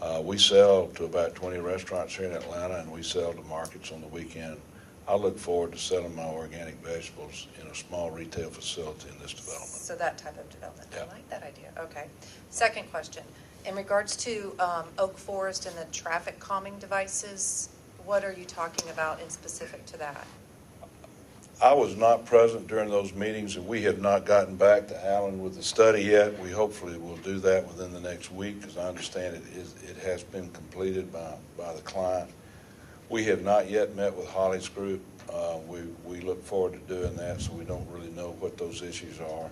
Uh, we sell to about 20 restaurants here in Atlanta, and we sell to markets on the weekend. I look forward to selling my organic vegetables in a small retail facility in this development. So that type of development, I Yeah. like that idea, okay. Second question, in regards to um, Oak Forest and the traffic calming devices, what are you talking about in specific to that? I was not present during those meetings, and we have not gotten back to Allen with the study yet. We hopefully will do that within the next week, because I understand it is, it has been completed by, by the client. We have not yet met with Holly's group. Uh, we, we look forward to doing that, so we don't really know what those issues are.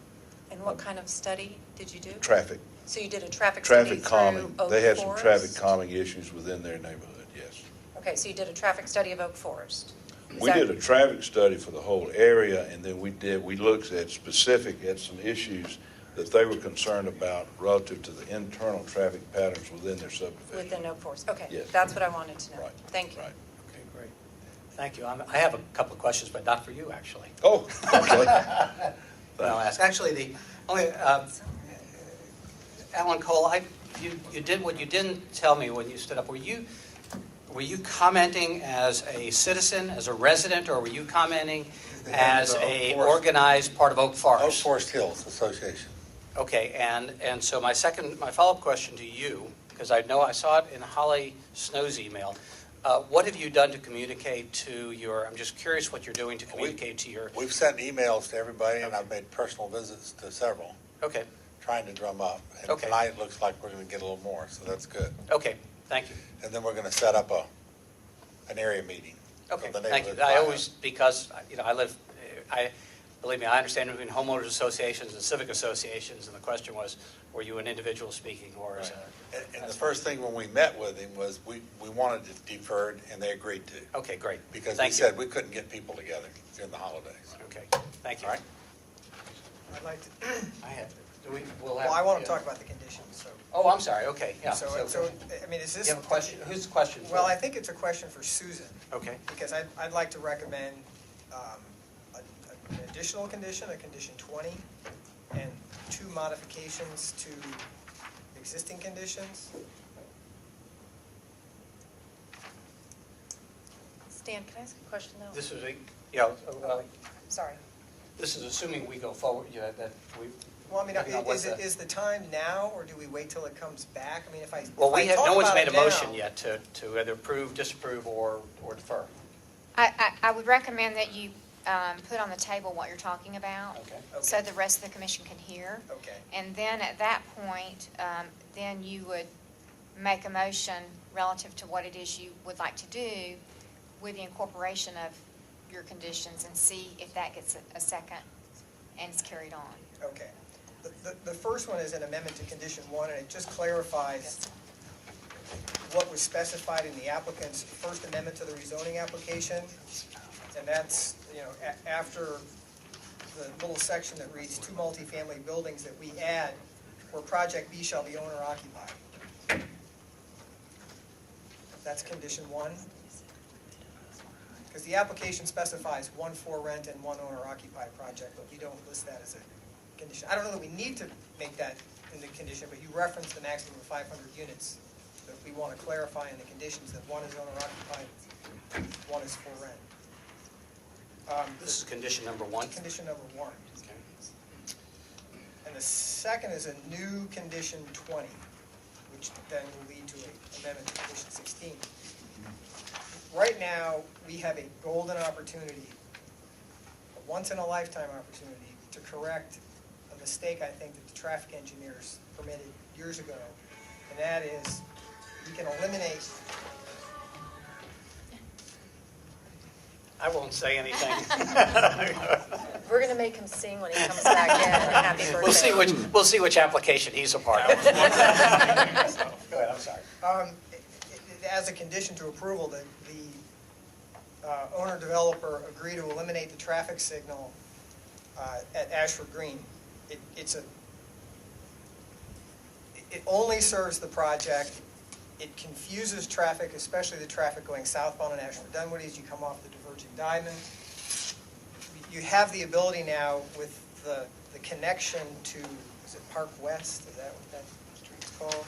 And what kind of study did you do? Traffic, So you did a traffic study traffic through calming. Oak They had some traffic Forest? calming issues within their neighborhood, yes. Okay, so you did a traffic study of Oak Forest? Is We that- did a traffic study for the whole area, and then we did, we looked at specific, at some issues that they were concerned about relative to the internal traffic patterns within their subdivision. Within Oak Forest, okay. Yes. That's what I wanted to know. Right, Thank you. right. Okay, great. Thank you. I'm- I have a couple of questions, but not for you, actually. Oh, okay. But I'll ask. Actually, the only, uh, Alan Cole, I, you, you did, what you didn't tell me when you stood up, were you, were you commenting as a citizen, as a resident, or were you commenting as Oak a Forest- organized part of Oak Forest? Oak Forest Hills Association. Okay, and, and so my second, my follow-up question to you, because I know I saw it in Holly Snow's email. Uh, What have you done to communicate to your, I'm just curious what you're doing to communicate to your, We've sent emails to everybody, and I've made personal visits to several, okay, trying to drum up. And Okay. tonight, it looks like we're going to get a little more, so that's good. okay, thank you. And then we're going to set up a, an area meeting. of Okay, the thank you. neighborhood I bio. always, because, you know, I live, I, believe me, I understand between homeowners associations and civic associations, and the question was, were you an individual speaking or as Right. a? And- And the first thing when we met with him was, we, we wanted it deferred, and they agreed to. Okay, great. Because we Thank you. said we couldn't get people together during the holidays. Okay, thank you. All right. I'd like to, I have, do we, we'll have. well, I want to yeah. talk about the conditions, so. Oh, I'm sorry, okay, yeah. So, so, I mean, is You this? have a question, whose question? Well, I think it's a question for Susan, Okay, because I'd, I'd like to recommend um, a- a- an additional condition, a condition 20, and two modifications to existing conditions. Stan, can I ask a question though? this is, a- yeah, Oh, uh, wait. Sorry. this is assuming we go forward, yeah, that we. Well, I mean, Depending on i- what is, it the- is the time now, or do we wait till it comes back? I mean, if I, if Well, we I have, talk no one's about made a it motion now- yet to, to either approve, disapprove, or, or defer. I, I, I would recommend that you um, put on the table what you're talking about. Okay. So Okay. the rest of the commission can hear. Okay. And then at that point, um, then you would make a motion relative to what it is you would like to do with the incorporation of your conditions and see if that gets a- a second and is carried on. Okay. The- The, the first one is an amendment to condition one, and it just clarifies what was specified in the applicant's first amendment to the rezoning application. And that's, you know, a- after the little section that reads two multifamily buildings that we add, where project B shall be owner occupied. That's condition one. Because the application specifies one for rent and one owner occupied project, but we don't list that as a condition. I don't know that we need to make that in the condition, but you referenced the maximum of five hundred units. But if we want to clarify in the conditions that one is owner occupied, one is for rent. Um, This is condition number one. Condition number one. Okay. And the second is a new condition twenty, which then will lead to a amendment to condition sixteen. Right now, we have a golden opportunity, a once-in-a-lifetime opportunity, to correct a mistake I think that the traffic engineers permitted years ago. And that is, we can eliminate, I won't say anything. We're going to make him sing when he comes back in. Happy birthday. We'll see which, we'll see which application he's a part of. Go ahead, I'm sorry. um, i- i- as a condition to approval, that the uh, owner developer agree to eliminate the traffic signal uh, at Ashford Green. It, it's a, it- it only serves the project. It confuses traffic, especially the traffic going southbound on Ashford Dunwoody as you come off the diverging diamond. You have the ability now with the, the connection to, is it Park West? Is that what that street's called?